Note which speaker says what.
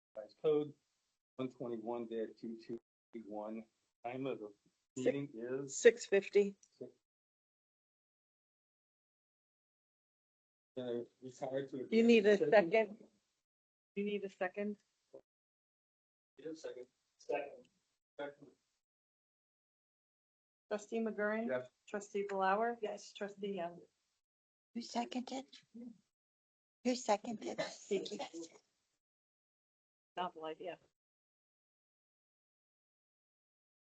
Speaker 1: Mass Code, one twenty-one two two one. Time of the meeting is
Speaker 2: Six fifty.
Speaker 1: gonna retire uh, to.
Speaker 2: You need a
Speaker 1: executive
Speaker 2: second?
Speaker 1: session.
Speaker 2: You need a second?
Speaker 1: Yeah, second. Second. Second.
Speaker 2: Trustee McGurran?
Speaker 1: Yes.
Speaker 2: Trustee Blower? Yes. Trustee um, Young?
Speaker 3: Who seconded? Who seconded?
Speaker 2: Vicky. Novel idea.